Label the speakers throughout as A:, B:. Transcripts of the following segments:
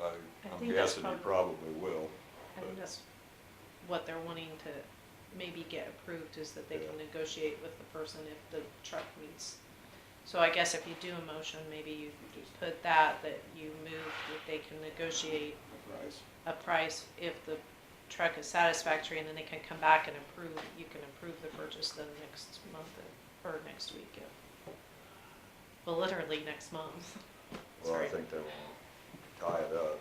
A: I'm
B: think that's
A: guessing you
B: prob-
A: probably will.
B: I think
A: but-
B: that's what they're wanting to maybe get approved is that they can
A: Yeah.
B: negotiate with the person if the truck meets. So I guess if you do a motion, maybe you put that, that you move, that they can negotiate
A: Price.
B: a price if the truck is satisfactory and then they can come back and approve, you can approve the purchase then next month or next week. if- Well, literally next month.
A: Well, I
B: Sorry.
A: think they wanna tie it up,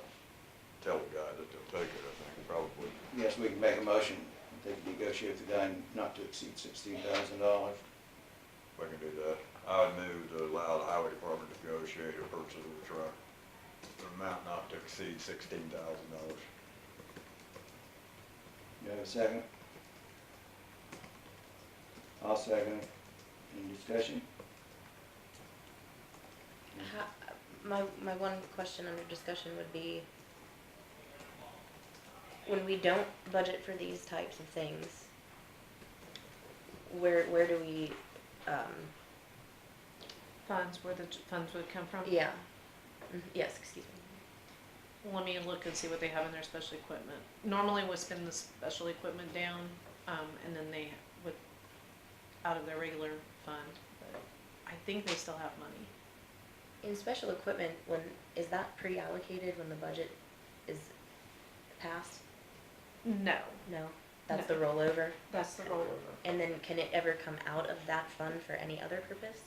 A: tell the guy that they'll take it, I think, probably.
C: Yes, we can make a motion, they can negotiate with the guy not to exceed sixteen thousand dollars.
A: We can do that. I would move to allow the highway department to negotiate a purchase of a truck, an amount not to exceed sixteen thousand dollars.
C: Do you have a second? I'll second it. Any discussion?
D: Ha- My, my one question under discussion would be, when we don't budget for these types of things, where, where do we, um,
B: Funds, where the funds would come from?
D: yeah, Mhm, yes, excuse me.
B: Let me look and see what they have in their special equipment. Normally we spend the special equipment down, um, and then they would, out of their regular fund, but I think they still have money.
D: In special equipment, when, is that pre-allocated when the budget is passed?
B: No,
D: No, that's the rollover?
B: that's the rollover.
D: And then can it ever come out of that fund for any other purpose?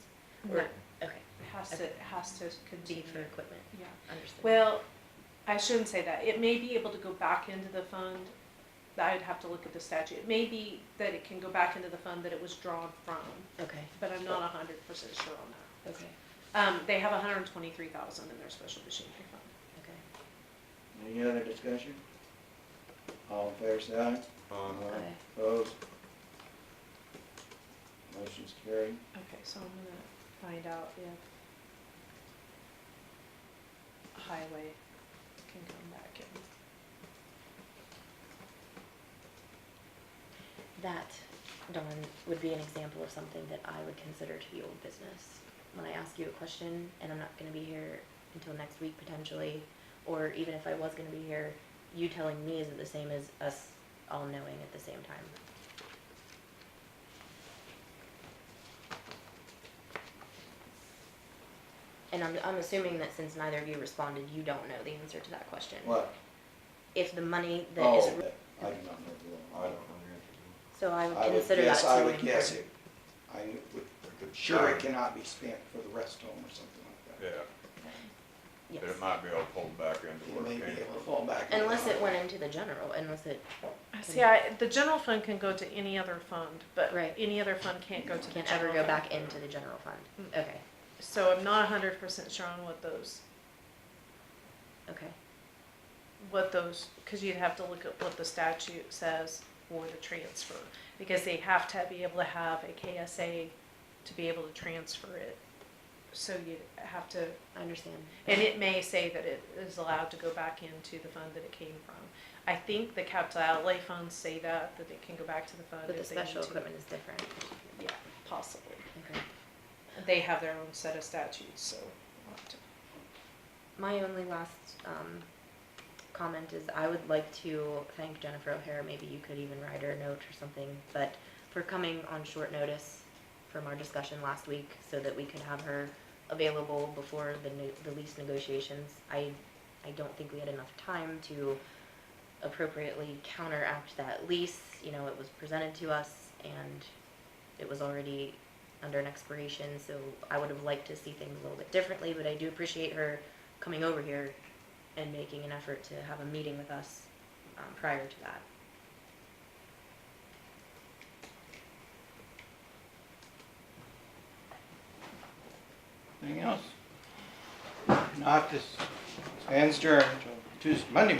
D: Or-
B: No, it
D: Okay,
B: has to, it has to
D: be
B: continue.
D: for equipment,
B: Yeah.
D: understood.
B: Well, I shouldn't say that. It may be able to go back into the fund. I'd have to look at the statute. It may be that it can go back into the fund that it was drawn from,
D: Okay,
B: but I'm not hundred percent sure on that.
D: okay,
B: Um, they have hundred and twenty-three thousand in their special machinery fund.
D: okay.
C: Any other discussion? All in favor, say aye.
A: Um,
D: Aye.
C: Opposed? Motion's carried.
B: Okay, so I'm gonna find out if highway can come back in.
D: That, Dawn, would be an example of something that I would consider to be old business. When I ask you a question and I'm not gonna be here until next week potentially, or even if I was gonna be here, you telling me isn't the same as us all knowing at the same time. And I'm, I'm assuming that since neither of you responded, you don't know the answer to that question.
C: What?
D: If the money that is,
C: Oh, I do not know the
A: I
C: law.
A: don't know the
D: so I would
C: I would
D: consider that
C: guess,
D: to
C: I would
D: incur.
C: guess it, I would,
A: answer. to it.
C: sure it cannot be spent for the rest home or something like that.
A: Yeah,
D: Yes.
A: but it might be able to pull back into
C: You
A: where it
C: may be
A: came
C: able to
A: from.
C: fall back. on
D: Unless
C: that.
D: it went into the general, unless it,
B: See, I, the general fund can go to any other fund, but
D: Right.
B: any other fund can't go to the
D: can't ever
B: general
D: go
B: fund.
D: back into the general fund.
B: Mm.
D: Okay,
B: So I'm not hundred percent sure on what those,
D: okay,
B: what those, cause you'd have to look at what the statute says for the transfer. Because they have to be able to have a KSA to be able to transfer it. So you'd have to
D: I understand.
B: And it may say that it is allowed to go back into the fund that it came from. I think the capital outlay funds say that, that it can go back to the fund
D: But the
B: if they need
D: special
B: to.
D: equipment is different.
B: Yeah, possibly.
D: Okay.
B: They have their own set of statutes, so. we'll have to-
D: My only last, um, comment is I would like to thank Jennifer O'Hara, maybe you could even write her a note or something, but for coming on short notice from our discussion last week so that we could have her available before the new, the lease negotiations. I, I don't think we had enough time to appropriately counteract that lease, you know, it was presented to us and it was already under an expiration, so I would have liked to see things a little bit differently, but I do appreciate her coming over here and making an effort to have a meeting with us um, prior to that.
C: Anything else? Not this, and adjourned till Tuesday, Monday